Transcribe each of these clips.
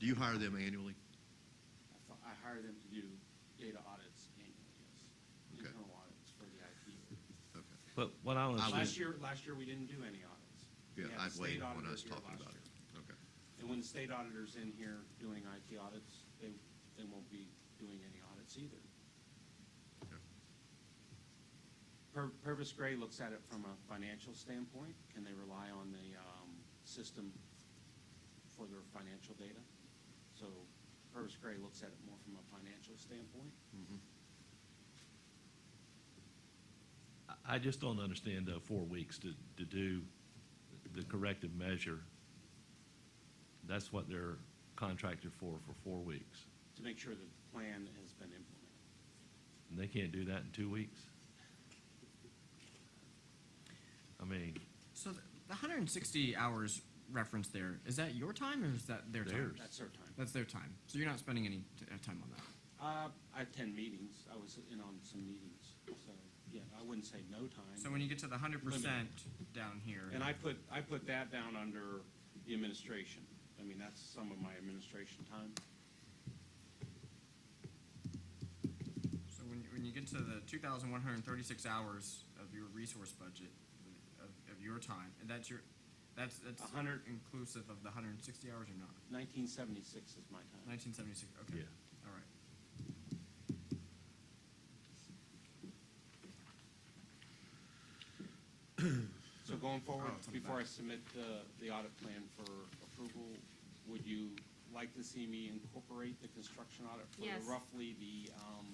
Do you hire them annually? I fi- I hire them to do data audits annually, yes, Okay. internal audits for the IT. Okay. But what I I want was- Last to, year, last year, we didn't do any audits. We Yeah, had the I've state waited on auditor us here talking last about year. it. Okay. And when the state auditor's in here doing IT audits, they, they won't be doing any audits either. Okay. Pur- Purvis Gray looks at it from a financial standpoint. Can they rely on the um, system for their financial data? So Purvis Gray looks at it more from a financial standpoint. I I just don't understand, uh, four weeks to, to do the corrective measure. That's what they're contracted for, for four weeks. to make sure that the plan has been implemented. And they can't do that in two weeks? I mean, So the, the 160 hours reference there is that your time or is that their time? Theirs. That's our time. That's their time. So you're not spending any t- uh, time on that. Uh, I attend meetings. I was in on some meetings, so, yeah, I wouldn't say no time. So when you get to the 100 percent down here, And I put, I put that down under the administration. I mean, that's some of my administration time. so when, when you get to the 2,136 hours of your resource budget uh, of, of your time, and that's your that's that's A hundred- inclusive of the 160 hours or not? Nineteen seventy-six is my time. 1976. Okay. All right. So going forward, Oh, it's on the before I back. submit the, the audit plan for approval, would you like to see me incorporate the construction audit for Yes. roughly the, um,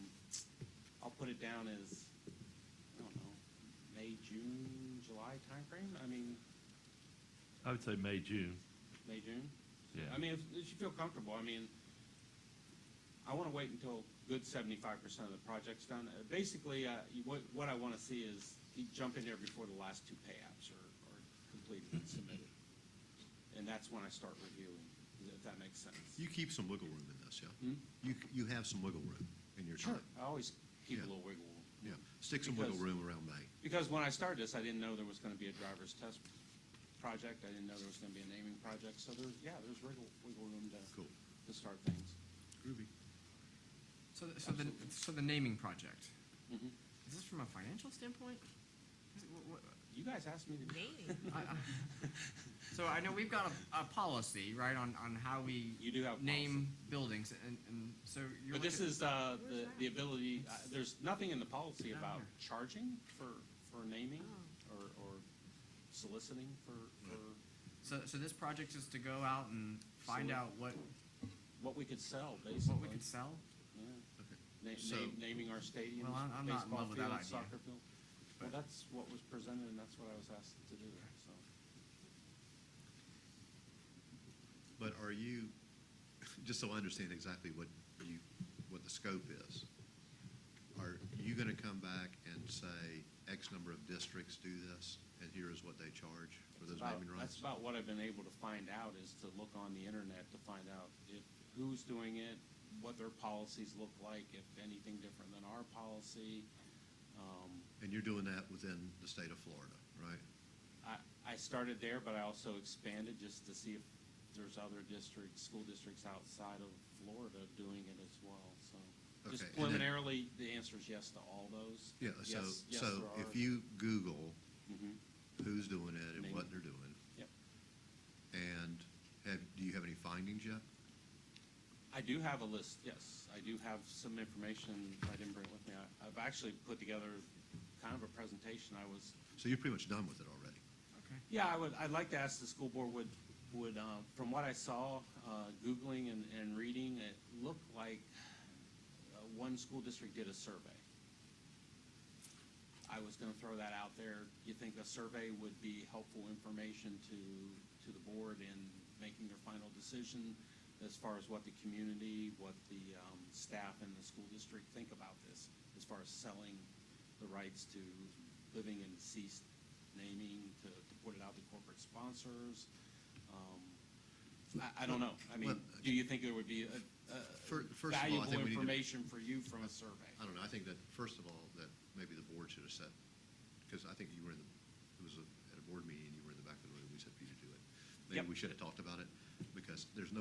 I'll put it down as, I don't know, May, June, July timeframe? I mean, I would say May, June. May, June? Yeah. I mean, if, if you feel comfortable, I mean, I wanna wait until good seventy-five percent of the project's done. Uh, Basically, uh, you- what, what I wanna see is you jump in there before the last two pay apps are, are completed and submitted. And that's when I start reviewing, if that makes sense. You keep some wiggle room in this, yeah? Hmm? You, you have some wiggle room in your time. I always keep a Yeah. little wiggle room. Yeah, stick some wiggle Because- room around May. Because when I started this, I didn't know there was gonna be a driver's test project, I didn't know there was gonna be a naming project, so there, yeah, there's wiggle, wiggle room Cool. to, to start things. Groovy. So the, so the Absolutely. so the naming project Mhm. is this from a financial standpoint? Is it, wha- wha- You guys asked me to. Maybe. I- I- So I know we've got a, a policy, right, on, on how we. You do have a Name buildings and, and so you're. But this looking- is, uh, the, Where's that? the ability, uh, there's nothing in the policy Down about here. charging for, for naming Oh. or, or soliciting for, for So, so this project is to go out and find So- out what, what we could sell, what we basically. could sell? Yeah. Okay. Na- So- na- Naming our stadiums, Well, I'm- I'm not in baseball love with that field, idea, soccer field. Well, but- that's what was presented and that's what I was asked to do, so. But are you, just so I understand exactly what you, what the scope is, are you gonna come back and say, X number of districts do this, and here is what they charge for those about- naming rights? That's about what I've been able to find out, is to look on the internet to find out if, who's doing it, what their policies look like, if anything different than our policy. Um, And you're doing that within the state of Florida, right? I, I started there, but I also expanded just to see if there's other districts, school districts outside of Florida doing it as well, so. Okay, Just and then- preliminarily, the answer is yes to all those. Yeah, so, Yes- yes, so there are. if you Google Mhm, who's doing it and what Naming. they're doing, Yep. and have, do you have any findings yet? I do have a list, yes. I do have some information I didn't bring with me. I- I've actually put together kind of a presentation. I was, So you're pretty much done with it already. Okay. yeah, I would, I'd like to ask the school board would, would, uh, from what I saw, uh, Googling and, and reading, it looked like uh, one school district did a survey. I was gonna throw that out there. You think a survey would be helpful information to, to the board in making their final decision as far as what the community, what the, um, staff and the school district think about this, as far as selling the rights to living and deceased naming, to, to put it out to corporate sponsors? Um, I, I don't know. I mean, Well, do you think there would be a, Fir- a first of all, I think Uh, valuable we need to- information for you from a survey? I don't know, I think that, first of all, that maybe the board should have said, because I think you were in the, it was a- at a board meeting, you were in the back of the room, we said for you to do it. Maybe we Yep. should have talked about it, because there's no